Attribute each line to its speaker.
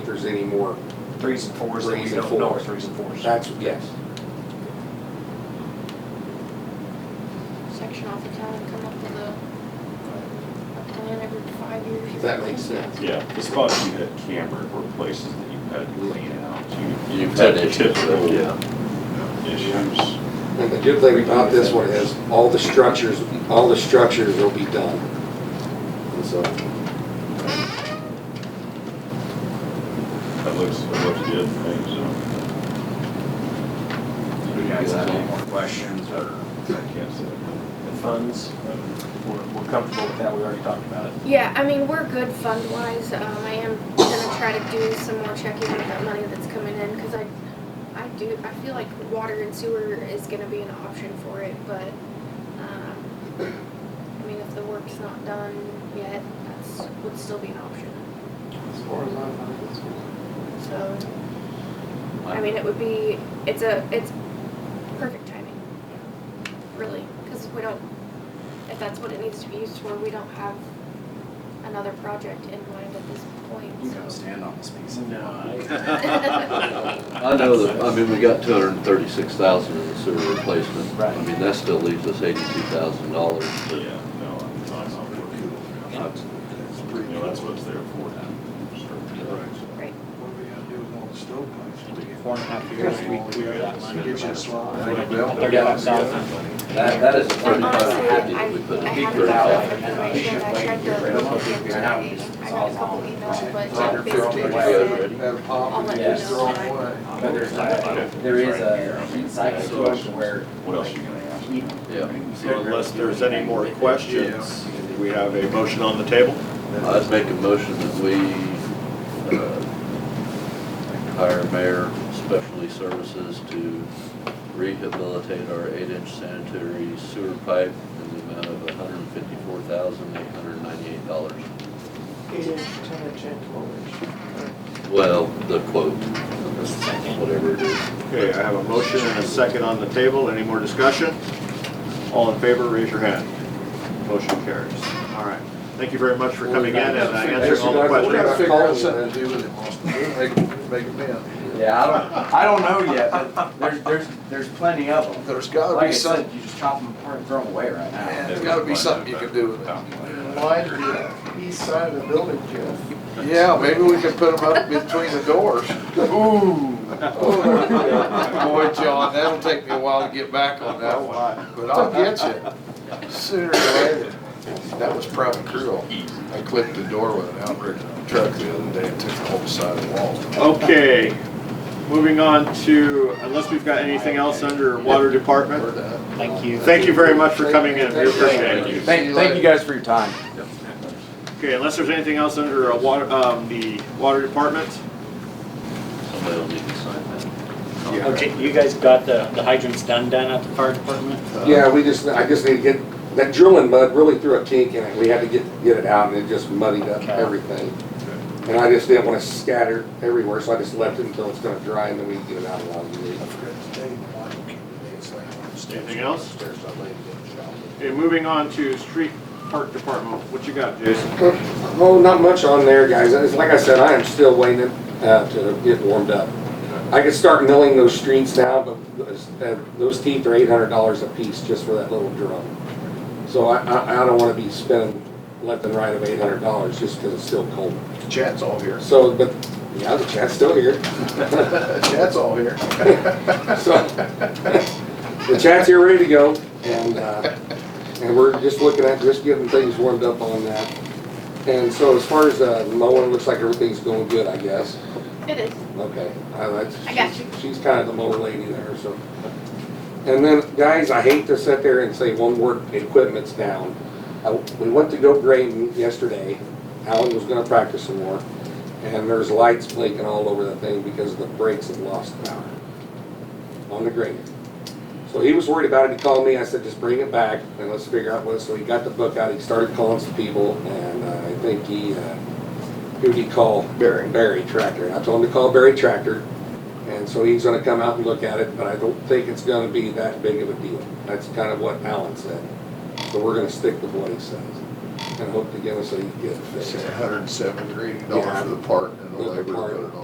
Speaker 1: there's any more,
Speaker 2: Threes and fours that we
Speaker 1: Threes and
Speaker 2: don't know are
Speaker 1: fours.
Speaker 2: threes and fours.
Speaker 1: that's, yes.
Speaker 3: section off the town and come up with a, a plan every five years. or
Speaker 1: That makes
Speaker 3: something.
Speaker 1: sense.
Speaker 4: Yeah, the spots you had cambered were places that you had to clean out.
Speaker 5: You had issues,
Speaker 4: Typical
Speaker 5: yeah.
Speaker 4: issues.
Speaker 1: And the good thing about this one is, all the structures, all the structures will be done. And so,
Speaker 4: That looks, that looks good, I think so.
Speaker 2: Do you guys have any more questions or
Speaker 4: I can't say.
Speaker 2: the funds? um, We're, we're comfortable with that, we already talked about it.
Speaker 3: Yeah, I mean, we're good fund wise. Um, I am gonna try to do some more checking with that money that's coming in, cause I, I do, I feel like water and sewer is gonna be an option for it, but, um, I mean, if the work's not done yet, that's, would still be an option,
Speaker 6: As far as I'm concerned.
Speaker 3: so. I mean, it would be, it's a, it's perfect timing, really, because we don't, if that's what it needs to be used for, we don't have another project in mind at this
Speaker 6: You can
Speaker 3: point, so.
Speaker 6: stand on this piece.
Speaker 5: I know that, I mean, we got two hundred and thirty-six thousand in the sewer replacement.
Speaker 2: Right.
Speaker 5: I mean, that still leaves us eighty-two thousand dollars.
Speaker 4: Yeah, no, I'm talking about work. You know, that's what it's there for.
Speaker 3: Right,
Speaker 6: What we gotta do with all the stovepipes?
Speaker 2: Four and a half years, we, we are that line.
Speaker 6: Get you a slide.
Speaker 2: Thirty-five thousand.
Speaker 5: That, that is a
Speaker 3: and
Speaker 5: thirty-five
Speaker 3: honestly,
Speaker 5: fifty
Speaker 3: I,
Speaker 5: that we put in.
Speaker 3: I
Speaker 5: Thirty
Speaker 3: haven't got
Speaker 5: thousand.
Speaker 3: enough information, I tried to look into it, I got a couple emails, but basically
Speaker 6: Fifteen.
Speaker 3: just said,
Speaker 6: At a pop, and
Speaker 3: Yes.
Speaker 6: just throw it away.
Speaker 7: But there's, there is a heat cycle to it to where.
Speaker 4: What else you gonna ask?
Speaker 5: Yeah.
Speaker 8: So Unless there's any more questions, we have a motion on the table.
Speaker 5: I'd make a motion that we, uh, hire Mayor Specialty Services to rehabilitate our eight-inch sanitary sewer pipe in the amount of hundred and fifty-four thousand, eight hundred and ninety-eight dollars.
Speaker 6: Eight inch, ten inch, and twelve inch.
Speaker 5: Well, the quote, whatever it is.
Speaker 8: Okay, I have a motion and a second on the table. Any more discussion? All in favor, raise your hand. Motion carries. All right. Thank you very much for coming in and uh, answering all the
Speaker 6: We gotta
Speaker 8: questions.
Speaker 6: figure out something to do with it, Austin. Make, make it bend.
Speaker 7: Yeah, I don't, I don't know yet, but there's, there's, there's plenty of them.
Speaker 6: There's gotta
Speaker 7: Like I
Speaker 6: be something,
Speaker 7: said, you just chop them apart and throw them away right
Speaker 6: man,
Speaker 7: now.
Speaker 6: there's gotta be something you can do with it.
Speaker 9: Why did the east side of the building, Jeff?
Speaker 6: Yeah, maybe we can put them up between the doors.
Speaker 7: Ooh.
Speaker 6: Boy, John, that'll take me a while to get back on that one, but I'll get you sooner or later. That was probably cruel. I clipped the door with an outrigger truck the other day and took the whole side of the wall.
Speaker 8: Okay, moving on to, unless we've got anything else under Water Department.
Speaker 6: Thank
Speaker 2: you.
Speaker 8: Thank you very much for coming in. We appreciate it.
Speaker 7: Thank, thank you guys for your time.
Speaker 8: Okay, unless there's anything else under uh, water, um, the Water Department?
Speaker 5: Somebody will need to sign that.
Speaker 10: You guys got the the hydrants done down at the fire department?
Speaker 1: Yeah, we just, I just need to get, that drilling mud really threw a kink in it, we had to get, get it out, and it just muddied up
Speaker 10: Okay.
Speaker 1: everything. And I just didn't wanna scatter everywhere, so I just left it until it's gonna dry, and then we can get it out along the way.
Speaker 8: Anything else? Okay, moving on to Street Park Department. What you got, Jason?
Speaker 1: Oh, not much on there, guys. It's like I said, I am still waiting uh, to get warmed up. I could start milling those streets now, but those- uh, those teeth are eight hundred dollars a piece just for that little drum. So I, I, I don't wanna be spending left and right of eight hundred dollars just 'cause it's still cold.
Speaker 6: Chad's all here.
Speaker 1: So, but, yeah, the chat's still here.
Speaker 6: Chad's all here.
Speaker 1: So, the chat's here ready to go, and, uh, and we're just looking at, just getting things warmed up on that. And so as far as, uh, mowing, looks like everything's going good, I guess.
Speaker 3: it is.
Speaker 1: Okay, I, that's.
Speaker 3: I got you.
Speaker 1: She's kind of the mower lady there, so. And then, guys, I hate to sit there and say one word, equipment's down. I- We went to go grading yesterday, Alan was gonna practice some more, and there's lights blinking all over the thing because the brakes had lost power on the grader. So he was worried about it, he called me, I said, just bring it back and let's figure out what, so he got the book out, he started calling some people, and uh, I think he, uh, who'd he call? Barry. Barry Tractor, and I told him to call Barry Tractor, and so he's gonna come out and look at it, but I don't think it's gonna be that big of a deal. That's kind of what Alan said. So we're gonna stick with what he says and hope to get us a, get it fixed.
Speaker 6: Hundred and seven degree dollar for the part and the labor to put it on.